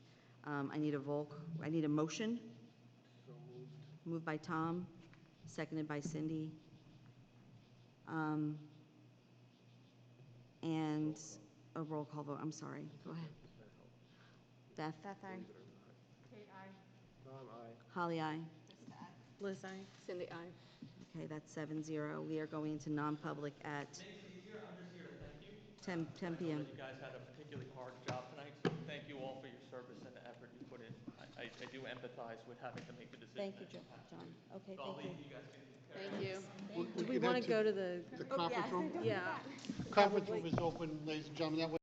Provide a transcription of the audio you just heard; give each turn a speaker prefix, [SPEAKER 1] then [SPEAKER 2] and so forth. [SPEAKER 1] Um, I need a vote, I need a motion. Moved by Tom, seconded by Cindy. Um, And a roll call vote, I'm sorry, go ahead. Beth?
[SPEAKER 2] Beth, aye.
[SPEAKER 1] Holly, aye.
[SPEAKER 2] Liz, aye. Cindy, aye.
[SPEAKER 1] Okay, that's seven zero. We are going into non-public at 10, 10
[SPEAKER 3] I
[SPEAKER 1] PM.
[SPEAKER 3] know that you guys had a particularly hard job tonight, so thank you all for your service and the effort you put in. I, I I do empathize with having to make the decision.
[SPEAKER 1] Thank you,
[SPEAKER 3] at
[SPEAKER 1] Jo-
[SPEAKER 3] this time.
[SPEAKER 1] John. Okay,
[SPEAKER 3] So I'll
[SPEAKER 1] thank you.
[SPEAKER 3] leave you guys to
[SPEAKER 2] Thank you.
[SPEAKER 4] We-
[SPEAKER 2] Do we
[SPEAKER 4] could
[SPEAKER 2] want
[SPEAKER 4] head
[SPEAKER 2] to go to the,
[SPEAKER 4] The conference room,
[SPEAKER 2] yeah.
[SPEAKER 4] conference room is open, ladies and gentlemen. That